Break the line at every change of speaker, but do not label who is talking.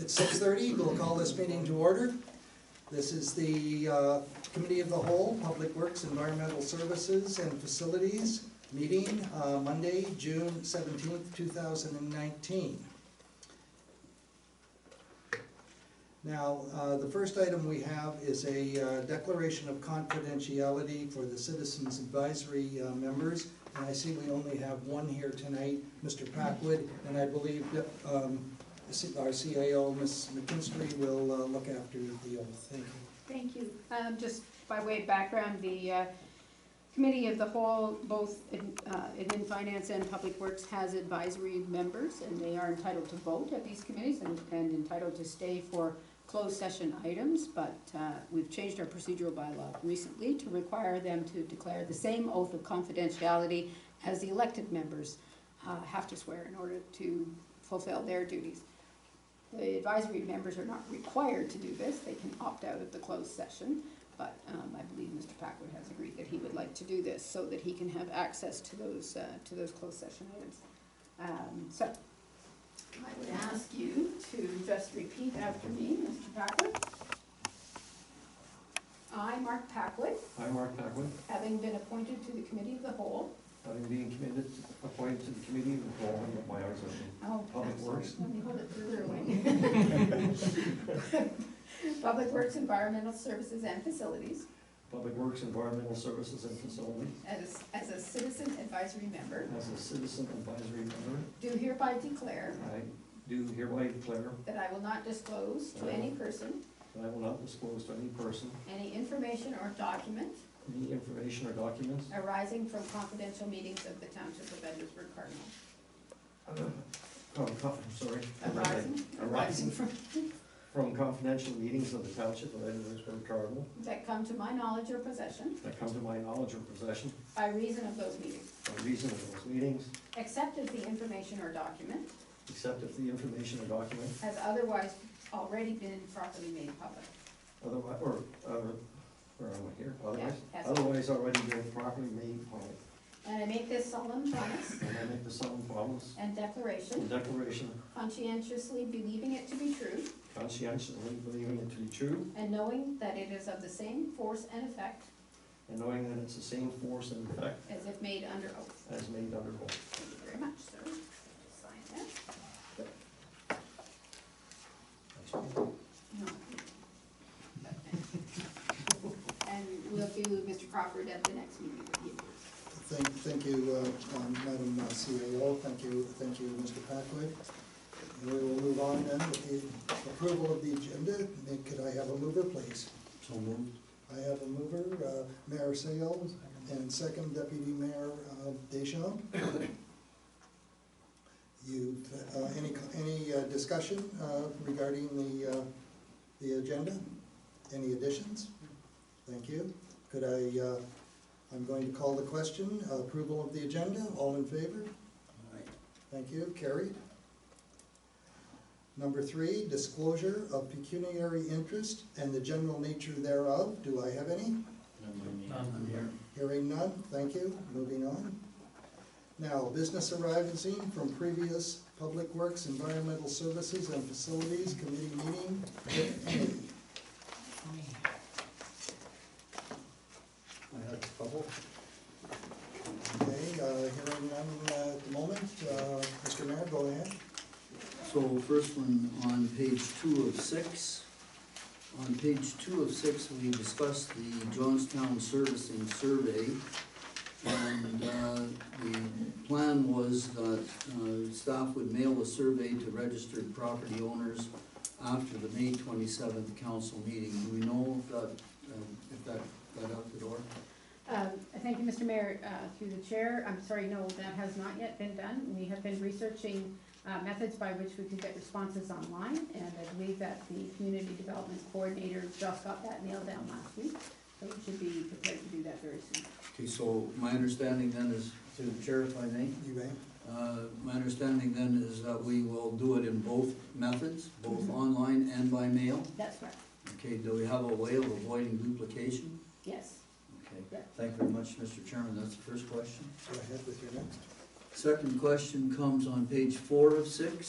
at six thirty, we'll call this meeting to order. This is the uh, Committee of the Whole, Public Works, Environmental Services and Facilities meeting, uh, Monday, June seventeenth, two thousand and nineteen. Now, uh, the first item we have is a uh, declaration of confidentiality for the Citizens Advisory uh, members. And I see we only have one here tonight, Mr. Packwood, and I believe that um, our CIO, Ms. McKinstry, will uh, look after the oath. Thank you.
Thank you. Um, Just by way of background, the uh, Committee of the Whole, both in uh, in Finance and Public Works, has advisory members, and they are entitled to vote at these committees and and entitled to stay for closed session items, but uh, we've changed our procedural bylaw recently to require them to declare the same oath of confidentiality as the elected members uh, have to swear in order to fulfill their duties. The advisory members are not required to do this, they can opt out of the closed session, but um, I believe Mr. Packwood has agreed that he would like to do this so that he can have access to those, uh, to those closed session items. Um, So, I would ask you to just repeat after me, Mr. Packwood. I, Mark Packwood,
I, Mark Packwood,
having been appointed to the Committee of the Whole.
having been committed, appointed to the committee of the whole of my hours of
Oh,
Public
I'm sorry.
Works.
Let me hold it further away. Public Works, Environmental Services and Facilities
Public Works, Environmental Services and Facilities
as, as a citizen advisory member,
as a citizen advisory member.
do hereby declare
I do hereby declare
that I will not disclose to any person
that I will not disclose to any person
any information or document
any information or documents
arising from confidential meetings of the Township of Edwardsburg Cardinal.
uh, from, co- I'm sorry.
Arising, arising from,
From confidential meetings of the Township of Edwardsburg Cardinal
that come to my knowledge or possession
that come to my knowledge or possession
by reason of those meetings,
by reason of those meetings,
except if the information or document
except if the information or document
has otherwise already been properly made public.
Otherwise, or, or, where am I here? Otherwise,
Yeah, yes.
otherwise already been properly made public.
And I make this solemn promise
And I make the solemn promise
and
and
declaration,
declaration
conscientiously believing it to be true,
conscientiously believing it to be true
and knowing that it is of the same force and effect
and knowing that it's the same force and effect
as if made under oath.
as made under oath.
Thank you very much, sir. Sign that. No. And we'll do Mr. Crawford at the next meeting with you.
Thank, thank you, uh, um, Madam uh, CAO, thank you, thank you, Mr. Packwood. And we will move on then with the approval of the agenda. Nick, Could I have a mover, please?
So moved.
I have a mover, uh, Mayor Sales, and second Deputy Mayor uh, Deschamps. You, uh, any, any uh, discussion uh, regarding the, uh, the agenda? Any additions? Thank you. Could I, uh, I'm going to call the question, uh, approval of the agenda, all in favor? Thank you, carried. Number three, disclosure of pecuniary interest and the general nature thereof. Do I have any? Hearing none, thank you, moving on. Now, business arising from previous Public Works, Environmental Services and Facilities Committee meeting, if any.
I had trouble.
Okay, uh, hearing none uh, at the moment, Uh, Mr. Mayor, go ahead.
So first one on page two of six. On page two of six, we discussed the Johnstown Servicing Survey. And uh, the plan was that uh, staff would mail a survey to registered property owners after the May twenty-seventh council meeting. Do we know if that, um, if that got out the door?
Um, Thank you, Mr. Mayor, uh, through the chair. I'm sorry, no, that has not yet been done. We have been researching uh, methods by which we can get responses online, and I believe that the community development coordinator just got that nailed down last week. So we should be prepared to do that very soon.
Okay, so my understanding then is, through the chair if I may,
You may.
Uh, My understanding then is that we will do it in both methods, both online and by mail.
That's right,
Okay, do we have a way of avoiding duplication?
yes.
Okay, thank you very much, Mr. Chairman, that's the first question.
Go ahead with your next.
Second question comes on page four of six.